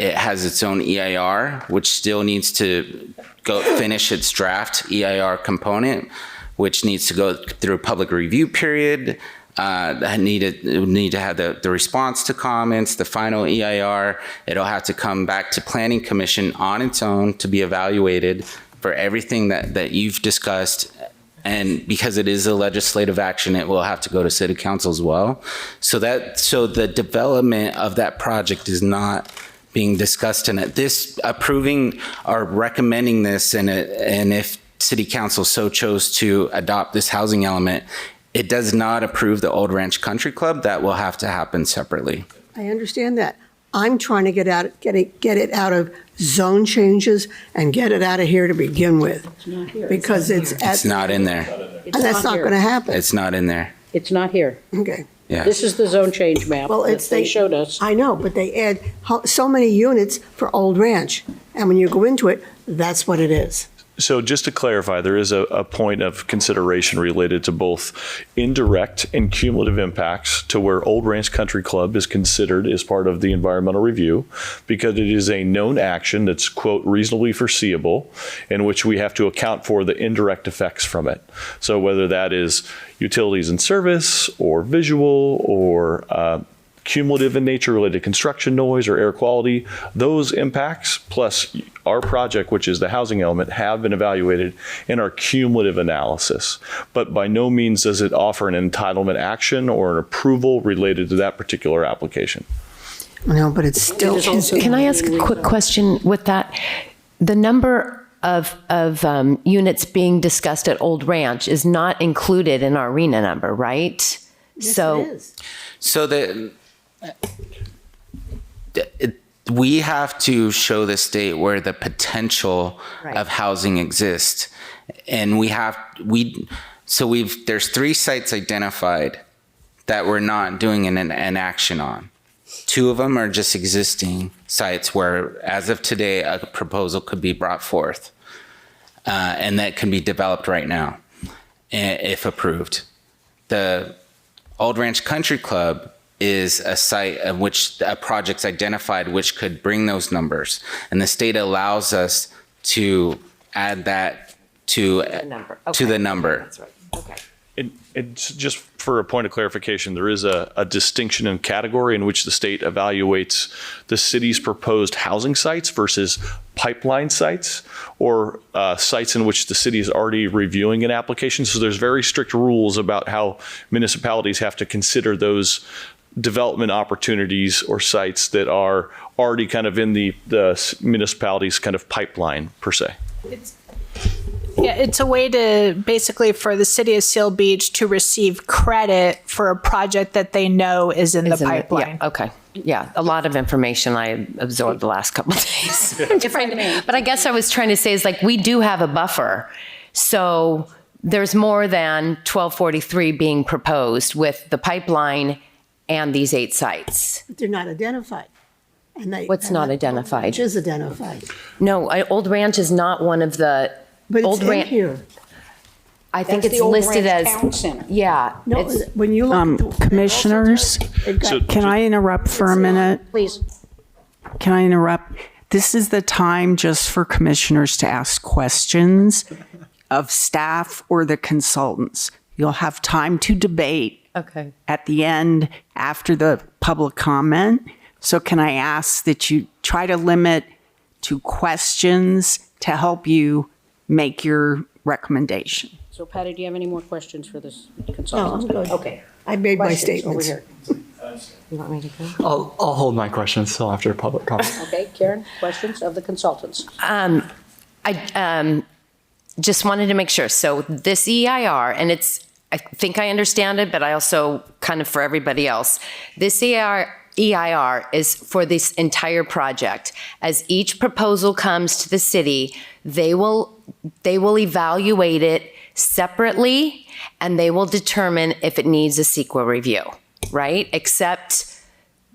It has its own EIR, which still needs to go finish its draft EIR component, which needs to go through a public review period. Uh, that needed it would need to have the, the response to comments, the final EIR. It'll have to come back to Planning Commission on its own to be evaluated for everything that, that you've discussed and because it is a legislative action, it will have to go to city council as well. So that, so the development of that project is not being discussed and at this approving or recommending this and it, and if city council so chose to adopt this housing element, it does not approve the Old Ranch Country Club. That will have to happen separately. I understand that. I'm trying to get out, get it, get it out of zone changes and get it out of here to begin with. Because it's, at- It's not in there. and that's not going to happen. It's not in there. It's not here. Okay. Yeah. This is the zone change map Well, that it's they showed us. I know, but they add ho- so many units for Old Ranch. And when you go into it, that's what it is. So just to clarify, there is a, a point of consideration related to both indirect and cumulative impacts to where Old Ranch Country Club is considered as part of the environmental review because it is a known action that's quote reasonably foreseeable in which we have to account for the indirect effects from it. So whether that is utilities and service or visual or uh, cumulative in nature related to construction noise or air quality. Those impacts, plus our project, which is the housing element, have been evaluated in our cumulative analysis. But by no means does it offer an entitlement action or an approval related to that particular application. No, but it's still, Can I ask a quick question with that? The number of, of um, units being discussed at Old Ranch is not included in our RENA number, right? So, So the, it- we have to show the state where the potential of housing exists. And we have, we, so we've, there's three sites identified that we're not doing an, an action on. Two of them are just existing sites where, as of today, a proposal could be brought forth. Uh, and that can be developed right now, i- if approved. The Old Ranch Country Club is a site of which a project's identified which could bring those numbers. And the state allows us to add that to, number. to the Okay. number. And, and s- just for a point of clarification, there is a, a distinction in category in which the state evaluates the city's proposed housing sites versus pipeline sites or uh, sites in which the city is already reviewing an application. So there's very strict rules about how municipalities have to consider those development opportunities or sites that are already kind of in the, the s- municipality's kind of pipeline per se. Yeah, it's a way to basically for the city of Seal Beach to receive credit for a project that they know is in Is the in the- pipeline. Yeah, okay. Yeah, a lot of information I absorbed the last couple of days. If I- But I guess I was trying to say is like, we do have a buffer. So there's more than 1243 being proposed with the pipeline and these eight sites. they're not identified. And they. What's not and Old identified? Ranch is identified. No, I, Old Ranch is not one of the, But it's Old in Ran- here. I think it's listed as, yeah. No, it's- when you look. at the- Um, Commissioners, They've got- can I interrupt for a minute? Please. Can I interrupt? This is the time just for commissioners to ask questions of staff or the consultants. You'll have time to debate Okay. at the end after the public comment. So can I ask that you try to limit to questions to help you make your recommendation? So Patty, do you have any more questions for this No, I'm consultant? good. Okay. I made my Questions over statements. here. I'll, I'll hold my questions till after public comment. Okay, Karen, questions of the consultants? I um, just wanted to make sure. So this EIR, and it's, I think I understand it, but I also kind of for everybody else, this E EIR, EIR is for this entire project. As each proposal comes to the city, they will, they will evaluate it separately and they will determine if it needs a sequel review, right? Except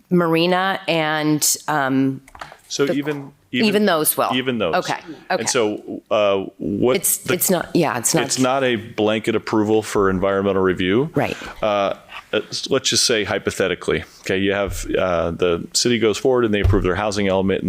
Marina and um, So even, even those will. Even those. Oh, Okay, okay. And so uh, what? it's, the- it's not, yeah, it's not. It's not a blanket approval for environmental review. Right. Uh, it's- Let's just say hypothetically, okay, you have, uh, the city goes forward and they approve their housing element